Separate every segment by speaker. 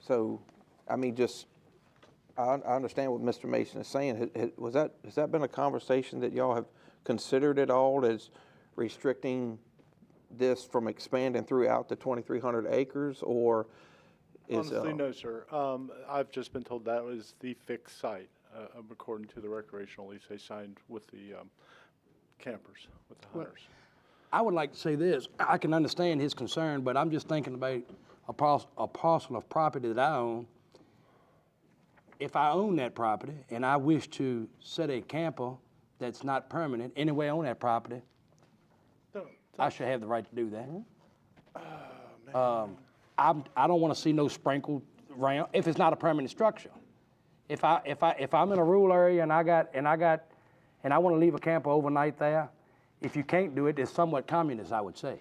Speaker 1: So, I mean, just, I, I understand what Mr. Mason is saying. Had- had- Was that, has that been a conversation that y'all have considered at all as restricting this from expanding throughout the 2,300 acres or is?
Speaker 2: Honestly,
Speaker 1: uh,
Speaker 2: no, sir. Um, I've just been told that was the fixed site, uh, um, according to the recreational lease they signed with the, um, campers, with the hunters.
Speaker 3: I would like to say this, I can understand his concern, but I'm just thinking about a parcel, a parcel of property that I own. If I own that property and I wish to set a camper that's not permanent anywhere on that property,
Speaker 2: No,
Speaker 3: I should have the right to do that. Um, I'm, I don't want to see no sprinkled round, if it's not a permanent structure. If I, if I, if I'm in a rural area and I got, and I got, and I want to leave a camper overnight there, if you can't do it, it's somewhat communist, I would say,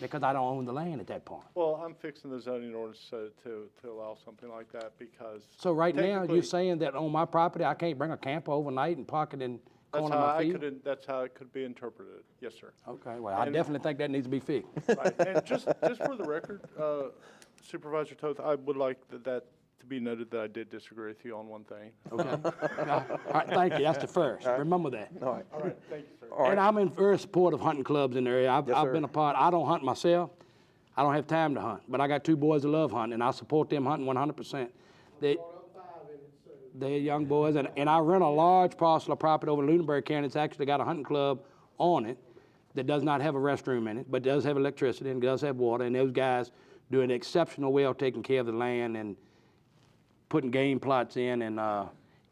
Speaker 3: because I don't own the land at that point.
Speaker 2: Well, I'm fixing the zoning ordinance so to, to allow something like that because.
Speaker 3: So right now,
Speaker 2: technically,
Speaker 3: you're saying that on my property, I can't bring a camper overnight and park it in
Speaker 2: That's
Speaker 3: corner
Speaker 2: how
Speaker 3: of my
Speaker 2: I
Speaker 3: field?
Speaker 2: could, that's how it could be interpreted. Yes, sir.
Speaker 3: Okay, well, I
Speaker 2: and-
Speaker 3: definitely think that needs to be fixed.
Speaker 2: Right, and just, just for the record, uh, Supervisor Toth, I would like that, that to be noted that I did disagree with you on one thing.
Speaker 3: Okay. All right, thank you. That's the first. Remember that.
Speaker 1: All right.
Speaker 2: All right, thank you, sir.
Speaker 3: And I'm in very support of hunting clubs in the area. I've,
Speaker 1: Yes,
Speaker 3: I've
Speaker 1: sir.
Speaker 3: been a part. I don't hunt myself. I don't have time to hunt, but I got two boys that love hunting, and I support them hunting 100%. They, they're young boys, and, and I rent a large parcel of property over in Lunenburg County. It's actually got a hunting club on it that does not have a restroom in it, but does have electricity and does have water. And those guys do an exceptional well taking care of the land and putting game plots in, and uh,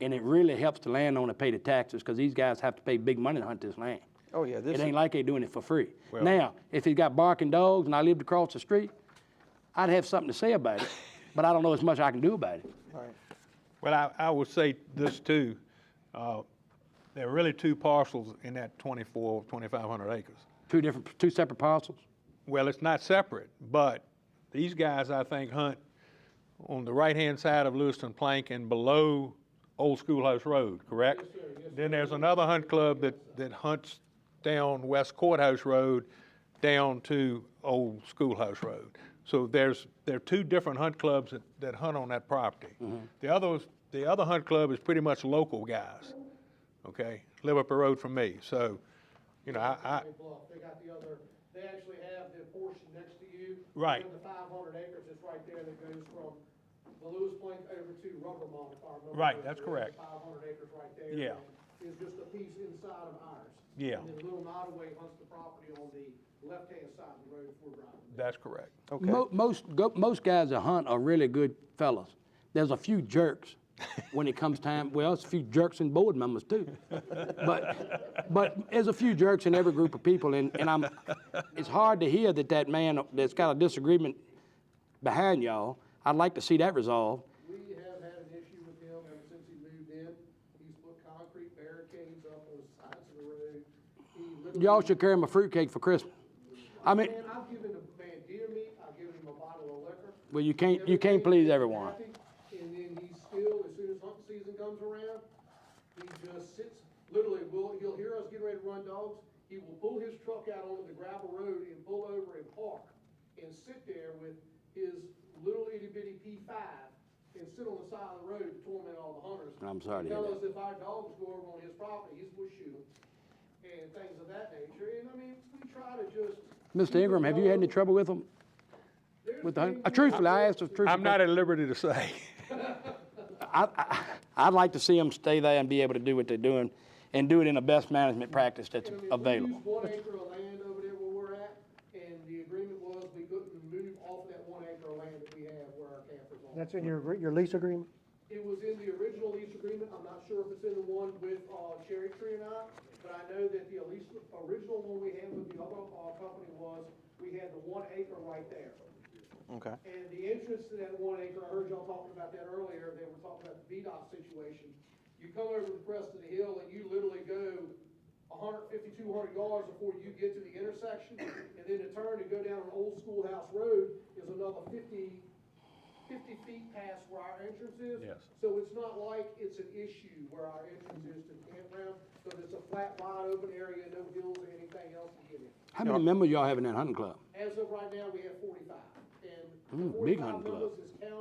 Speaker 3: and it really helps the landowner pay the taxes because these guys have to pay big money to hunt this land.
Speaker 1: Oh, yeah, this
Speaker 3: It
Speaker 1: is-
Speaker 3: ain't like they doing it for free. Now, if he got barking dogs and I lived across the street, I'd have something to say about it, but I don't know as much I can do about it.
Speaker 1: All right.
Speaker 4: Well, I, I will say this too. uh, There are really two parcels in that 24, 2,500 acres.
Speaker 3: Two different, two separate parcels.
Speaker 4: Well, it's not separate, but these guys, I think, hunt on the right-hand side of Lewiston Plank and below Old Schoolhouse Road, correct? Then there's another hunt club that, that hunts down West Courthouse Road, down to Old Schoolhouse Road. So there's, there are two different hunt clubs that, that hunt on that property. The other, the other hunt club is pretty much local guys, okay? Live up the road from me, so, you know, I, I,
Speaker 5: They bluff, they got the other, they actually have the portion next to you.
Speaker 4: Right.
Speaker 5: And the five hundred acres is right there that goes from the Lewis Plank over to Rubbermont, if I remember.
Speaker 4: Right, that's correct.
Speaker 5: Five hundred acres right there.
Speaker 4: Yeah.
Speaker 5: Is just a piece inside of ours.
Speaker 4: Yeah.
Speaker 5: And then Little Nottaway hunts the property on the left-hand side of the road before driving.
Speaker 4: that's correct.
Speaker 3: Mo- Most, go- most guys that hunt are really good fellas. There's a few jerks when it comes time, well, it's a few jerks and board members too. But, but there's a few jerks in every group of people and, and I'm, it's hard to hear that that man that's got a disagreement behind y'all, I'd like to see that resolved.
Speaker 5: We have had an issue with him ever since he moved in. He's put concrete barricades up on the sides of the road. He literally.
Speaker 3: Y'all should carry him a fruitcake for Christmas. I mean,
Speaker 5: Man, I've given a man deer meat, I've given him a bottle of liquor.
Speaker 3: well, you can't, you can't please everyone.
Speaker 5: And then he still, as soon as hunting season comes around, he just sits, literally, will, he'll hear us getting ready to run dogs. He will pull his truck out onto the gravel road and pull over and park and sit there with his little itty bitty P five and sit on the side of the road to torment all the hunters.
Speaker 3: I'm sorry to hear
Speaker 5: Tell
Speaker 3: that.
Speaker 5: us if our dogs go over on his property, he's gonna shoot 'em and things of that nature. And I mean, we try to just.
Speaker 3: Mr. Ingram, have you had any trouble with him?
Speaker 5: There's
Speaker 3: With the, hunt-
Speaker 5: been-
Speaker 3: uh, truthfully, I asked a truthful
Speaker 4: I'm not at liberty to say.
Speaker 3: I, I, I'd like to see them stay there and be able to do what they're doing and do it in the best management practice that's available.
Speaker 5: And I mean, we used one acre of land over there where we're at, and the agreement was we couldn't move off of that one acre of land that we have where our campers are.
Speaker 6: That's in your, agree- your lease agreement?
Speaker 5: It was in the original lease agreement, I'm not sure if it's in the one with, uh, Cherry Tree or not, but I know that the lease, original one we had with the other, uh, company was, we had the one acre right there.
Speaker 1: Okay.
Speaker 5: And the entrance to that one acre, I heard y'all talking about that earlier, they were talking about the VDOT situation. You come over the crest of the hill and you literally go 150, 200 yards before you get to the intersection. And then to turn to go down an old schoolhouse road is another 50, 50 feet past where our entrance is.
Speaker 4: Yes.
Speaker 5: So it's not like it's an issue where our entrance is to the campground, because it's a flat, wide open area, no hills or anything else to get in.
Speaker 3: How many members y'all have in that hunting club?
Speaker 5: As of right now, we have forty-five, and the
Speaker 3: Mm, big
Speaker 5: forty-five
Speaker 3: hunting club.
Speaker 5: members is counting